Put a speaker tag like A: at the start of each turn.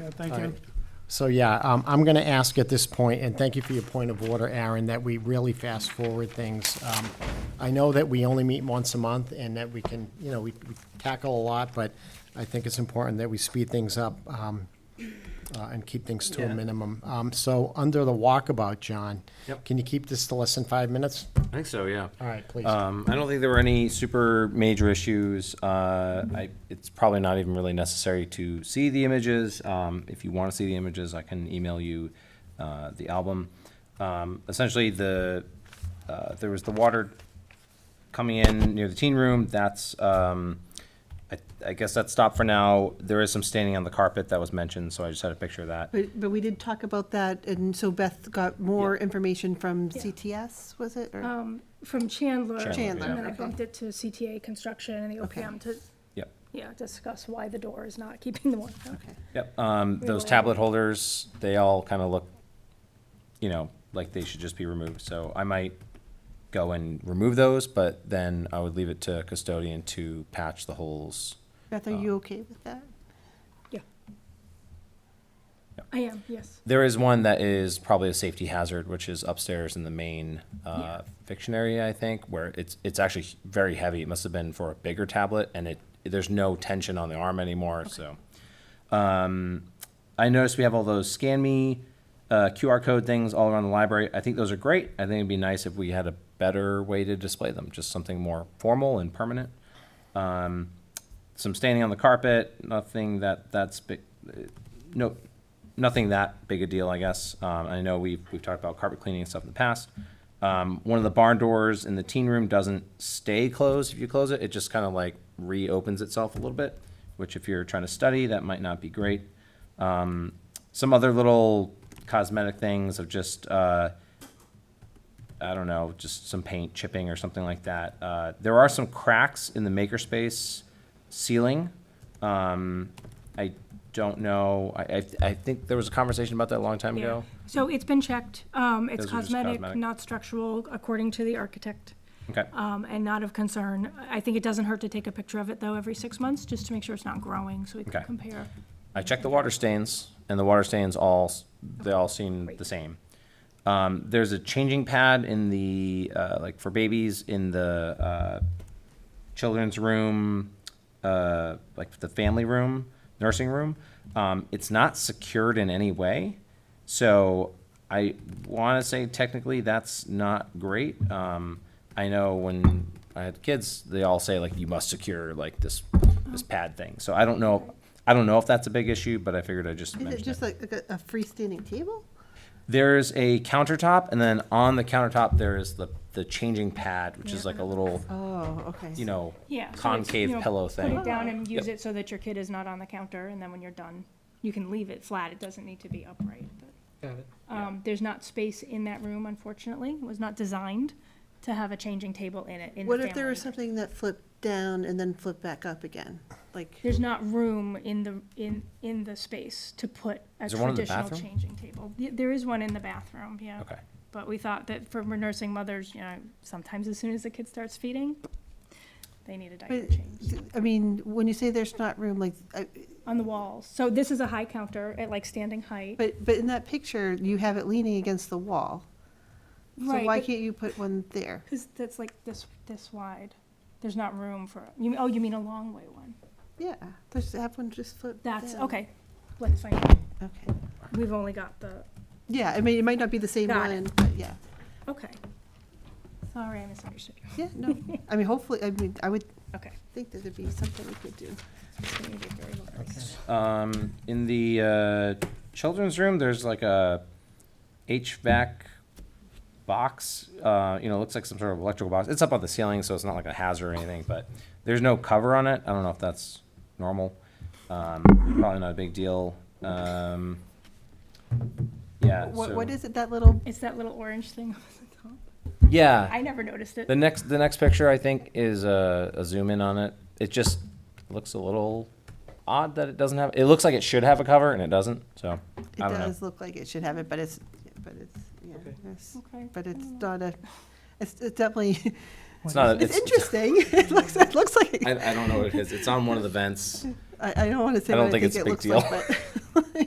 A: Yeah, thank
B: All
A: you.
B: right. So, yeah, um, I'm going to ask at this point, and thank you for your point of order, Aaron, that we really fast-forward things. Um, I know that we only meet once a month and that we can, you know, we we tackle a lot, but I think it's important that we speed things up um, uh, and keep things to a
C: Yeah.
B: minimum. Um, So, under the walkabout, John,
C: Yep.
B: can you keep this to less than five minutes?
C: I think so, yeah.
B: All right, please.
C: Um, I don't think there were any super major issues. Uh, I, it's probably not even really necessary to see the images. Um, if you want to see the images, I can email you uh, the album. Um, essentially, the uh, there was the water coming in near the teen room. That's um, I, I guess that's stopped for now. There is some staining on the carpet that was mentioned, so I just had a picture of that.
D: But, but we did talk about that, and so Beth got more information from CTS, was it? or-
E: um, from Chandler.
C: Chandler, Chandler,
E: And then
D: yeah.
E: I
D: okay.
E: bumped it to CTA Construction and the
D: Okay.
E: OPM to,
C: Yep.
E: yeah, discuss why the door is not keeping the water out.
D: Okay.
C: Yep, um, those
E: Really?
C: tablet holders, they all kind of look, you know, like they should just be removed, so I might go and remove those, but then I would leave it to custodian to patch the holes.
D: Beth, are you okay with that?
E: I am, yes.
C: There is one that is probably a safety hazard, which is upstairs in the main, uh, fiction area, I think, where it's, it's actually very heavy, it must have been for a bigger tablet, and it, there's no tension on the arm anymore, so. Um, I noticed we have all those scan me uh, QR code things all around the library. I think those are great. I think it'd be nice if we had a better way to display them, just something more formal and permanent. Um, some standing on the carpet, nothing that that's big, uh, no, nothing that big a deal, I guess. Um, I know we've we've talked about carpet cleaning and stuff in the past. Um, one of the barn doors in the teen room doesn't stay closed if you close it. It just kind of like reopens itself a little bit, which if you're trying to study, that might not be great. Um, some other little cosmetic things of just, uh, I don't know, just some paint chipping or something like that. Uh, there are some cracks in the makerspace ceiling. Um, I don't know. I, I, I think there was a conversation about that a long time
E: Yeah.
C: ago.
E: So it's been checked. Um, it's
C: Those are just
E: cosmetic,
C: cosmetic.
E: not structural, according to the architect,
C: Okay.
E: um, and not of concern. I think it doesn't hurt to take a picture of it, though, every six months, just to make sure it's not growing, so we can
C: Okay.
E: compare.
C: I checked the water stains, and the water stains all, s- they all seem the same. Um, there's a changing pad in the, uh, like for babies in the, uh, children's room, uh, like the family room, nursing room. Um, it's not secured in any way. So I want to say technically that's not great. Um, I know when I had kids, they all say like you must secure like this this pad thing. So I don't know. I don't know if that's a big issue, but I figured I'd just
D: Is it
C: mention it.
D: just like like a a freestanding table?
C: There's a countertop, and then on the countertop there is the the changing pad, which is like a little
D: Oh, okay.
C: you know
E: Yeah. so it's,
C: concave
E: you know,
C: pillow thing.
E: Put it down and
C: Yep.
E: use it so that your kid is not on the counter, and then when you're done, you can leave it flat. It doesn't need to be upright, but.
B: Got it.
E: Um, there's not space in that room, unfortunately. It was not designed to have a changing table in it. In
D: What
E: the
D: if there was
E: family.
D: something that flipped down and then flipped back up again? Like,
E: There's not room in the in in the space to put a
C: Is there one in the
E: traditional
C: bathroom?
E: changing table. Y- There is one in the bathroom, yeah.
C: Okay.
E: But we thought that for nursing mothers, you know, sometimes as soon as the kid starts feeding, they need a diaper
D: but,
E: change
D: I mean, when you say there's not room, like, I-
E: on the walls. So this is a high counter at like standing height.
D: but, but in that picture, you have it leaning against the wall. So
E: Right,
D: why
E: but-
D: can't you put one there?
E: Because that's like this this wide. There's not room for you. Oh, you mean a long way one?
D: Yeah, just have one just flip down.
E: That's okay. Let's find. out.
D: Okay.
E: We've only got the,
D: Yeah, I mean, it might not be the same
E: Got
D: one,
E: it.
D: but yeah.
E: okay. Sorry, I misunderstood you.
D: Yeah, no, I mean, hopefully, I mean, I would
E: Okay.
D: think that there'd be something we could do.
E: It's gonna be very localized.
C: Um, in the uh, children's room, there's like a HVAC box. Uh, you know, looks like some sort of electrical box. It's up on the ceiling, so it's not like a hazard or anything. But there's no cover on it. I don't know if that's normal. Um, probably not a big deal. Um, yeah.
D: What,
C: so-
D: what is it, that little,
E: It's that little orange thing on the top.
C: Yeah.
E: I never noticed it.
C: The next, the next picture, I think, is a, a zoom in on it. It just looks a little odd that it doesn't have, it looks like it should have a cover and it doesn't, so,
D: it
C: I don't know.
D: does look like it should have it, but it's, but it's, yeah, it's,
E: Okay.
D: but it's not a, it's it's definitely,
C: It's not, a-
D: it's
C: Uh, it's,
D: interesting. It looks, it looks like,
C: I, I don't know what it is. It's on one of the vents.
D: I, I don't want to say
C: I don't
D: what I
C: think
D: think
C: it's
D: it
C: a big
D: looks like, but.